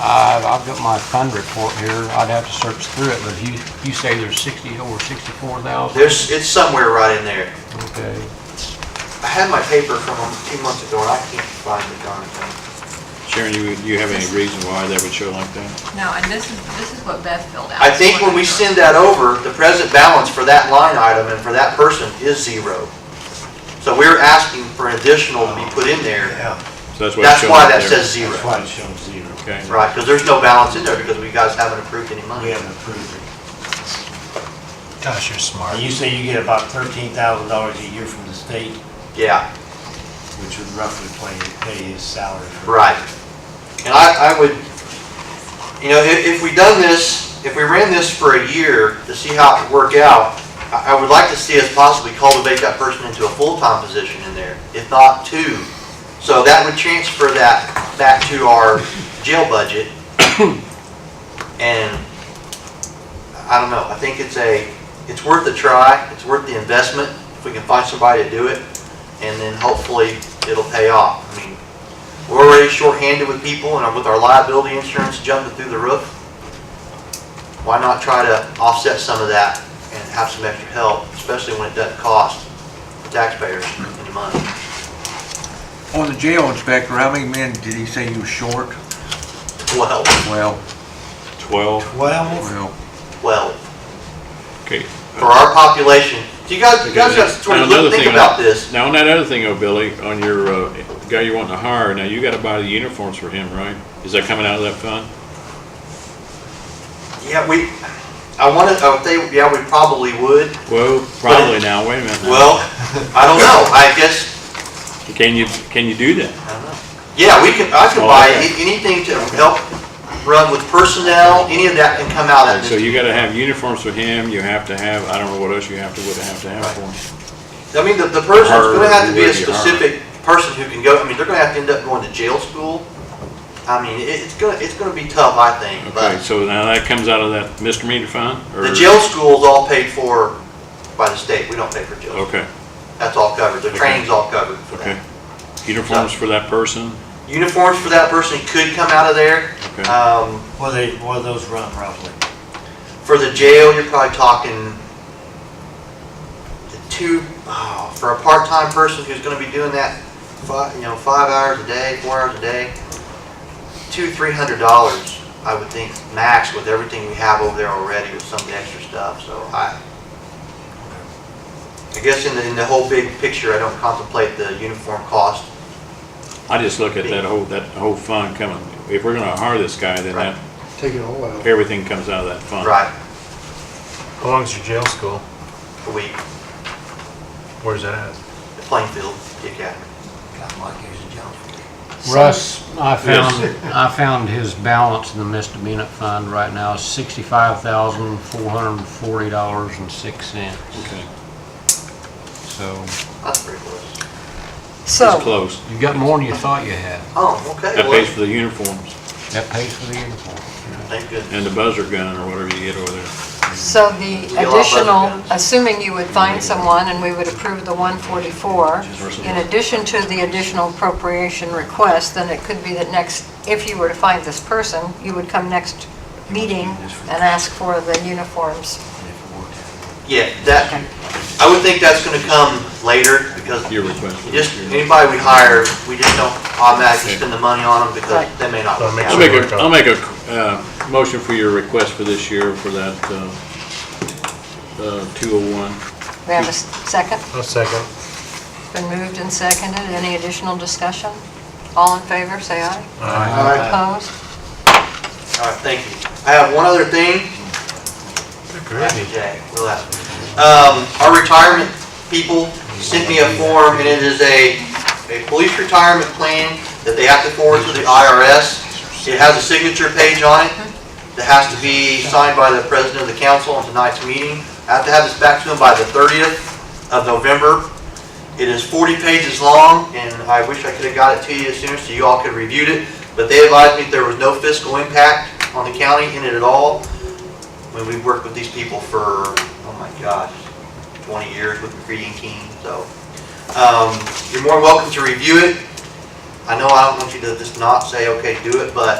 I've, I've got my fund report here, I'd have to search through it, but you, you say there's sixty, over sixty-four thousand? There's, it's somewhere right in there. Okay, I had my paper from a few months ago, and I can't find the darn thing. Sharon, you, you have any reason why that would show like that? No, and this is, this is what Beth filled out. I think when we send that over, the present balance for that line item and for that person is zero. So we're asking for an additional to be put in there. Yeah, So that's why it's That's showing why up that there. says zero, that's why it shows zero. Okay. right? Because there's no balance in there because we guys haven't approved any money. We haven't approved it. Gosh, you're smart. And you say you get about thirteen thousand dollars a year from the state, Yeah, which would roughly play- pay his salary. for- right. And I, I would, you know, if, if we done this, if we ran this for a year to see how it would work out, I, I would like to see us possibly cultivate that person into a full-time position in there, if not two. So that would transfer that back to our jail budget. And, I don't know, I think it's a, it's worth a try, it's worth the investment, if we can find somebody to do it, and then hopefully it'll pay off. I mean, we're already shorthanded with people and with our liability insurance jumping through the roof. Why not try to offset some of that and have some extra help, especially when it doesn't cost the taxpayers any money? On the jail inspector, how many men did he say you were short? Well, Well, Twelve, Twelve, well, well, okay. for our population, do you guys, you guys have to sort of Now, another look- think thing about this. Now, on that other thing, oh, Billy, on your, uh, guy you want to hire, now you gotta buy the uniforms for him, right? Is that coming out of that fund? Yeah, we, I wanted, I would think, yeah, we probably would. Well, probably now, wait a minute. now. Well, I don't know, I guess, Can you, can you do that? Yeah, we can, I can Oh, buy okay. a- anything to help run with personnel, any of that can come out of So this. you gotta have uniforms for him, you have to have, I don't know what else you have to, would have to have for him. I mean, the, the person's gonna have to be a Or would be hard. specific person who can go, I mean, they're gonna have to end up going to jail school. I mean, it, it's gonna, it's gonna be tough, I think, Okay, but so now that comes out of that misdemeanor fund? or- the jail school's all paid for by the state, we don't pay for jail. Okay, That's all covered, the Oh. Okay. training's all covered for okay. that. Uniforms for that person? Uniforms for that person could come out of there. Okay. Um, what do they, what do those run roughly? For the jail, you're probably talking the two, oh, for a part-time person who's gonna be doing that, five, you know, five hours a day, four hours a day, two, three hundred dollars, I would think, max with everything we have over there already with some of the extra stuff, so I, I guess in the, in the whole big picture, I don't contemplate the uniform cost. I just look at that whole, that whole fund coming, if we're gonna hire this guy, then Right. that. Take it all out. Everything comes out of that fund. Right, How long's your jail school? a week, Where's that at? the playing field, the academy. Russ, I found, I found his balance in the misdemeanor fund right now is sixty-five thousand, four hundred and forty dollars and six cents, Okay, so That's pretty close. it's So, close. you got more than you thought you had. Oh, okay. That well, pays for the uniforms That pays for the uniform. Thank goodness. and the buzzer gun or whatever you get over there. so the You all love additional, guns. assuming you would find someone and we would approve the 144, in addition to the additional appropriation request, then it could be that next, if you were to find this person, you would come next meeting and ask for the uniforms. Yeah, that, I would think that's gonna come later, because Your request. for just, this year. anybody we hire, we just don't automatically spend the money on them, because Right. they may not Well, it work makes I'll out. make a, I'll make a, uh, motion for your request for this year for that, uh, uh, two oh one. We have a s- second? A second. It's Been moved and seconded. Any additional discussion? All in favor, say aye. Opposed? All right, thank you. I have one other thing, Happy Jay, relax. Um, our retirement people sent me a form, and it is a, a police retirement plan that they have to forward to the IRS. It has a signature page on it that has to be signed by the president of the council on tonight's meeting. I have to have this back to them by the thirtieth of November. It is forty pages long, and I wish I could have got it to you as soon so you all could have reviewed it. But they advised me there was no fiscal impact on the county in it at all. I mean, we've worked with these people for, oh my gosh, 20 years with the greeting team, so. um, You're more welcome to review it. I know I don't want you to just not say, okay, do it, but